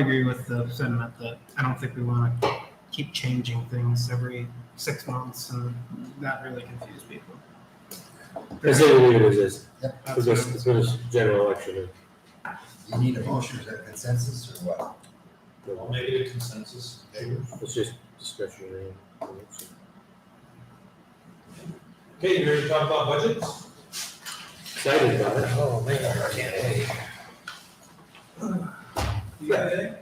agree with the sentiment that I don't think we want to keep changing things every six months and that really confuse people. I say we leave it as is, That's because what it's, I'm- it's been a s- general election. You need a motion, is that consensus or what? and, I'll uh, make it a consensus. It's just discretionary. so. Okay, you ready to talk about budgets? Excited about it. Oh, man, I can't. You got anything?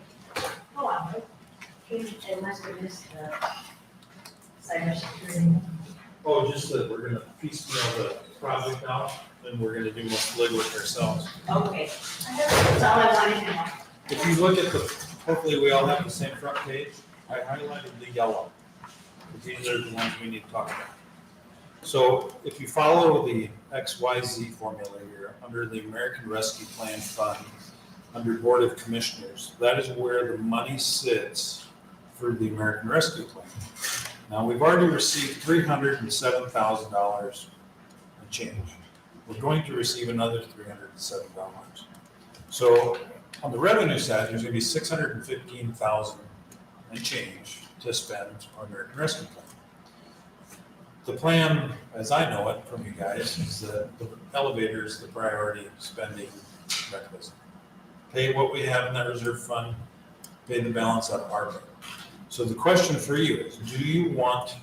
Hold on, I must have missed the cybersecurity. Oh, just that we're gonna piecemeal the project out, and we're gonna do most legwork ourselves. Okay, that's all I wanted to know. If you look at the, hopefully we all have the same front page, I highlighted the yellow. because These are the ones we need to talk about. So if you follow the XYZ formula here, under the American Rescue Plan Fund, under Board of Commissioners, that is where the money sits for the American Rescue Plan. Now, we've already received three hundred and seven thousand dollars and change. We're going to receive another three hundred and seven dollars. So on the revenue side, there's gonna be six hundred and fifteen thousand and change to spend on American Rescue Plan. The plan, as I know it from you guys, is that the elevator is the priority spending mechanism. Pay what we have in that reserve fund, pay the balance out of ARPA. So the question for you is, do you want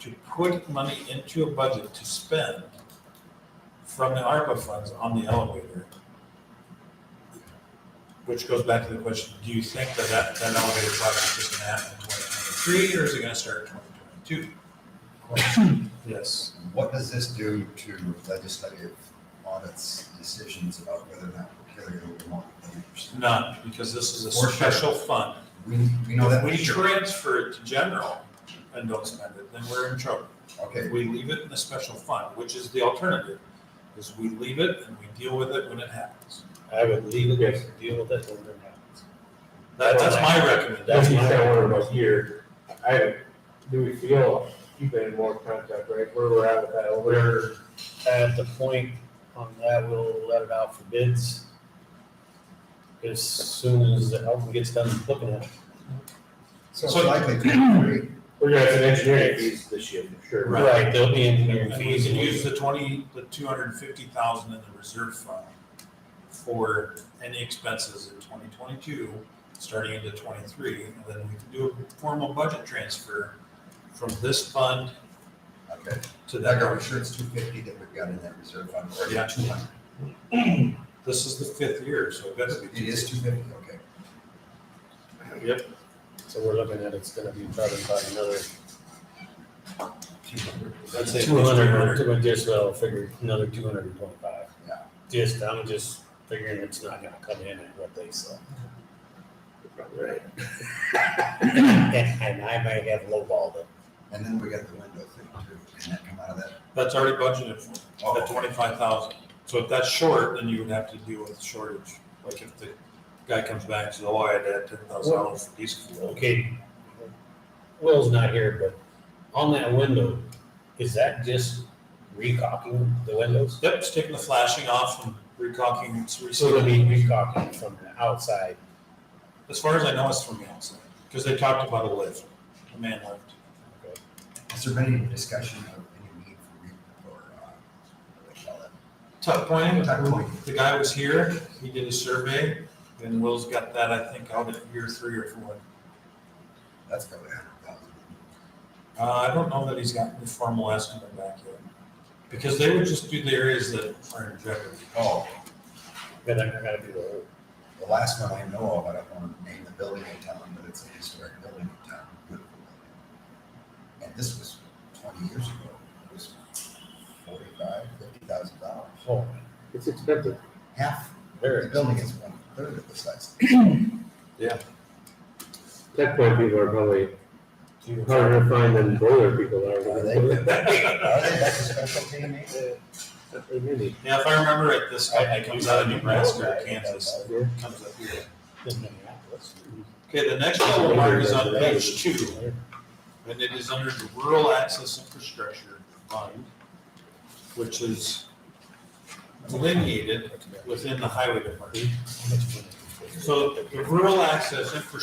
to put money into a budget to spend from the ARPA funds on the elevator? Which goes back to the question, do you think that that, that elevator project is gonna happen in twenty twenty-three, or is it gonna start in twenty twenty-two? Yes, What does this do to legislative audits, decisions about whether or not we're carrying over more than eighty percent? none, because this is a For sure. special fund. We, we know that. If for we sure. transfer it to general and don't spend it, then we're in trouble. Okay, We leave it in the special fund, which is the alternative, is we leave it and we deal with it when it happens. I would leave it, yes, deal with it when it happens. That, that's my That's recommendation. kind of what I'm about here. I, do we feel, you've been in more contact, right, where we're at with that, where, We're at the point on that, we'll let it out for bids as soon as the album gets done looking at it. so it's So- likely to be we're gonna have some engineering fees this year, for sure. Right. There'll be engineering And we fees. can use the twenty, the two hundred and fifty thousand in the reserve fund for any expenses in twenty twenty-two, starting into twenty-three, and then we can do a formal budget transfer from this fund okay. to That that. got insurance two fifty that we've got in that reserve fund, or Yeah. two hundred, This is the fifth year, so it better be. it is two fifty, okay. So we're looking at it's gonna be probably about another, Two hundred. I'd say Two two hundred. hundred, two hundred, just, I'll figure another two hundred and twenty-five. Yeah. Just, I'm just figuring it's not gonna come in at what they said. Right. And, and I might have lowballed it. And then we got the window thing too, can that come out of that? That's already budgeted for, Oh, at twenty-five thousand. So if that's short, then you would have to deal with shortage. Like if the guy comes back and says, oh, I had to add ten thousand dollars for diesel fuel. Okay, Will's not here, but on that window, is that just recocking the windows? Yep, it's taking the flashing off and recocking, it's So it'll be resealing. recocking from the outside. As far as I know, it's from the outside, because they talked about a lift, a man lift. Okay. Has there been any discussion of any need for, re- or, uh, what do they call it? Tuck point, Tuck point. the guy was here, he did a survey, and Will's got that, I think, out at year three or four. That's probably a hundred thousand. Uh, I don't know that he's gotten a formal estimate back yet, because they would just do the areas that are in jeopardy. Oh, Then I gotta do the whole. the last one I know of, I don't want to name the building in town, but it's a historic building in town. beautiful building. And this was twenty years ago, it was forty-five, fifty thousand dollars. whole. It's expensive. Half, Very the building is one third of the size. Tech point people are probably few. harder to find than boiler people are. Are they, are they, that's a special team, eh? They really- Yeah, if I remember right, this guy comes out of Nebraska or Kansas, yeah. comes up here. In Minneapolis. Okay, the next yellow mark is on page two. And it is under the Rural Access Infrastructure Fund, which is delineated within the highway department. So the rural access infrastructure